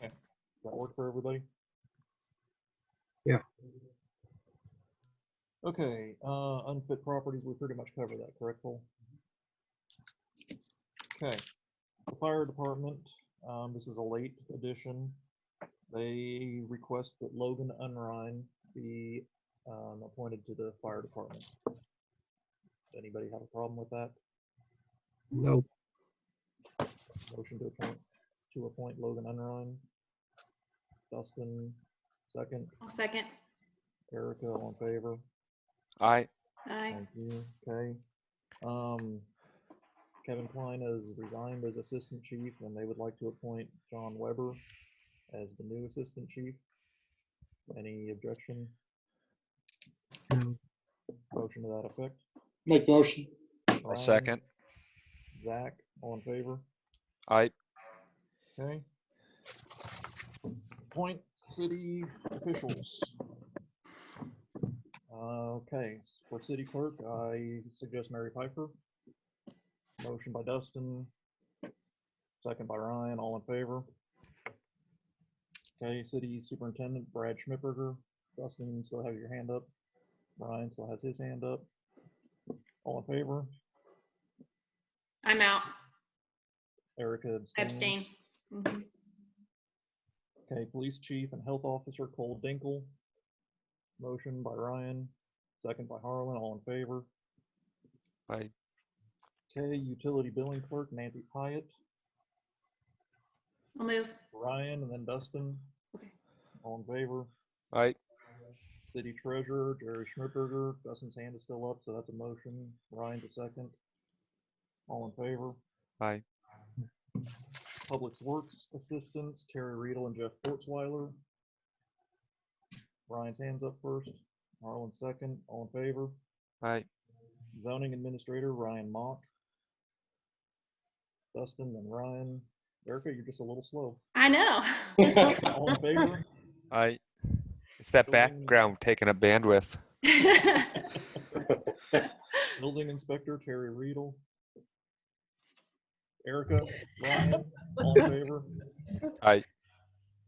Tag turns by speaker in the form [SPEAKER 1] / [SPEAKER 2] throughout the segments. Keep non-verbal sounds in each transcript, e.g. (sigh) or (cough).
[SPEAKER 1] That work for everybody?
[SPEAKER 2] Yeah.
[SPEAKER 1] Okay, uh, unfit properties, we pretty much covered that, correct, Paul? Okay, the fire department, um, this is a late addition. They request that Logan Unrein be, um, appointed to the fire department. Does anybody have a problem with that?
[SPEAKER 2] No,
[SPEAKER 1] Motion to appoint, to appoint Logan Unrein. Dustin, second.
[SPEAKER 3] I'll second.
[SPEAKER 1] Erica, all in favor?
[SPEAKER 4] Aye.
[SPEAKER 3] Aye.
[SPEAKER 1] Thank you, okay. Um, Kevin Klein has resigned as Assistant Chief, and they would like to appoint John Weber as the new Assistant Chief. Any objection?
[SPEAKER 2] no,
[SPEAKER 1] Motion to that effect?
[SPEAKER 5] Make the motion.
[SPEAKER 4] I'll
[SPEAKER 2] Um,
[SPEAKER 1] Brian,
[SPEAKER 4] second.
[SPEAKER 1] Zach, all in favor?
[SPEAKER 4] Aye.
[SPEAKER 1] Okay. Appoint city officials. Uh, Okay, s- for city clerk, I suggest Mary Piper. Motion by Dustin. Second by Ryan, all in favor. Okay, city superintendent Brad Schmittberger. Dustin, you still have your hand up. Ryan still has his hand up. All in favor?
[SPEAKER 3] I'm out.
[SPEAKER 1] Erica
[SPEAKER 3] I
[SPEAKER 1] abstains.
[SPEAKER 3] abstain. Mhm.
[SPEAKER 1] Okay, police chief and health officer Cole Dinkle. Motion by Ryan, second by Harlan, all in favor.
[SPEAKER 4] Aye.
[SPEAKER 1] Okay, utility billing clerk Nancy Hyatt,
[SPEAKER 3] I'll move.
[SPEAKER 1] Ryan, and then Dustin.
[SPEAKER 3] Okay.
[SPEAKER 1] All in favor.
[SPEAKER 4] Aye.
[SPEAKER 1] City treasurer Jerry Schmidberger, Dustin's hand is still up, so that's a motion. Ryan's a second. All in favor.
[SPEAKER 4] Aye.
[SPEAKER 1] Public Works Assistants, Terry Riedel and Jeff Fortzweiler. Ryan's hands up first, Harlan second, all in favor.
[SPEAKER 4] Aye.
[SPEAKER 1] Zoning Administrator, Ryan Mock. Dustin and Ryan. Erica, you're just a little slow.
[SPEAKER 3] I know. (laughs)
[SPEAKER 1] All in favor?
[SPEAKER 4] Aye. It's that
[SPEAKER 1] Building-
[SPEAKER 4] background taking up bandwidth.
[SPEAKER 1] Building Inspector, Terry Riedel. Erica, Ryan, all in favor?
[SPEAKER 4] Aye.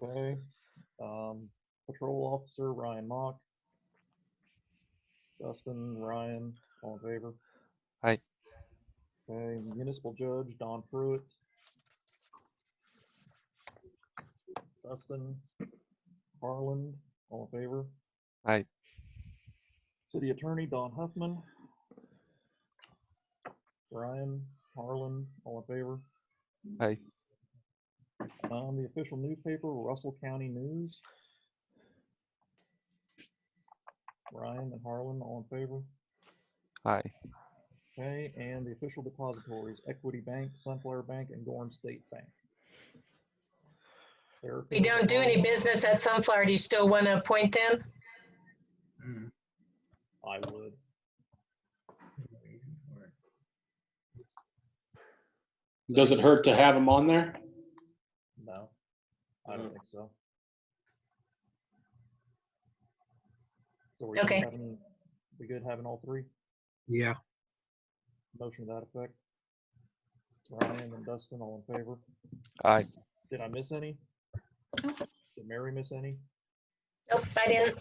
[SPEAKER 1] Okay, um, patrol officer Ryan Mock. Dustin, Ryan, all in favor?
[SPEAKER 4] Aye.
[SPEAKER 1] Okay, municipal judge Don Pruitt. Dustin, Harland, all in favor?
[SPEAKER 4] Aye.
[SPEAKER 1] City attorney Don Huffman. Ryan, Harlan, all in favor?
[SPEAKER 4] Aye.
[SPEAKER 1] Um, the official newspaper, Russell County News. Ryan and Harlan, all in favor.
[SPEAKER 4] Aye.
[SPEAKER 1] Okay, and the official depositories, Equity Bank, Sunflower Bank, and Gorham State Bank.
[SPEAKER 6] We don't do any business at Sunflower. Do you still want to appoint them?
[SPEAKER 4] Mm.
[SPEAKER 1] I would.
[SPEAKER 5] Does it hurt to have him on there?
[SPEAKER 1] No, I don't think so. So we're
[SPEAKER 6] Okay.
[SPEAKER 1] We good having all three?
[SPEAKER 2] yeah,
[SPEAKER 1] Motion to that effect. Ryan and Dustin, all in favor.
[SPEAKER 4] Aye.
[SPEAKER 1] Did I miss any?
[SPEAKER 3] Nope.
[SPEAKER 1] Did Mary miss any?
[SPEAKER 6] Nope, I didn't.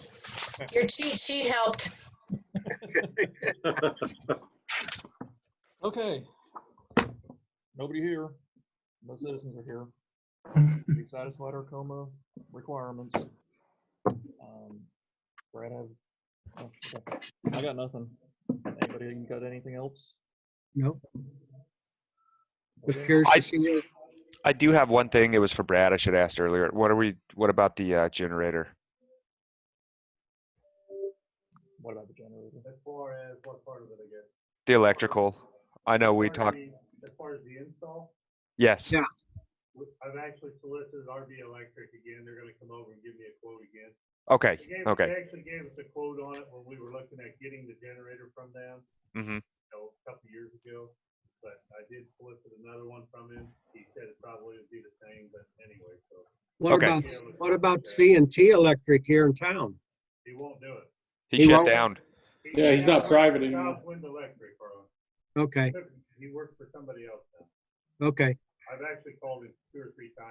[SPEAKER 6] Your cheat sheet helped.
[SPEAKER 1] Okay. Nobody here. No citizens are here. We satisfied our coma requirements. Um, Brad, have, oh, okay. I got nothing. Anybody, you got anything else?
[SPEAKER 2] no. Was
[SPEAKER 1] Okay.
[SPEAKER 2] curious
[SPEAKER 4] I-
[SPEAKER 2] to see what-
[SPEAKER 4] I do have one thing. It was for Brad. I should have asked earlier. What are we? What about the uh, generator?
[SPEAKER 1] What about the generator?
[SPEAKER 7] As far as what part of it, I guess?
[SPEAKER 4] The electrical. I know we
[SPEAKER 7] As far
[SPEAKER 4] talked.
[SPEAKER 7] as the- As far as the install,
[SPEAKER 4] Yes.
[SPEAKER 2] Yeah.
[SPEAKER 7] we- I've actually solicited RB Electric again. They're gonna come over and give me a quote again.
[SPEAKER 4] Okay.
[SPEAKER 7] They gave-
[SPEAKER 4] Okay.
[SPEAKER 7] They actually gave us a quote on it when we were looking at getting the generator from them,
[SPEAKER 4] hmm
[SPEAKER 7] you know, a couple years ago. But I did solicit another one from him. He said it probably would be the same, but anyway, so
[SPEAKER 2] what
[SPEAKER 4] Okay.
[SPEAKER 2] about, what about CNT Electric here in town?
[SPEAKER 7] he won't do it.
[SPEAKER 4] He,
[SPEAKER 2] He
[SPEAKER 4] shut
[SPEAKER 2] won't-
[SPEAKER 4] down.
[SPEAKER 7] He-
[SPEAKER 5] Yeah, he's not private anymore.
[SPEAKER 7] Southwind Electric, Harlan.
[SPEAKER 2] Okay,
[SPEAKER 7] He works for somebody else now.
[SPEAKER 2] okay.
[SPEAKER 7] I've actually called him two or three times.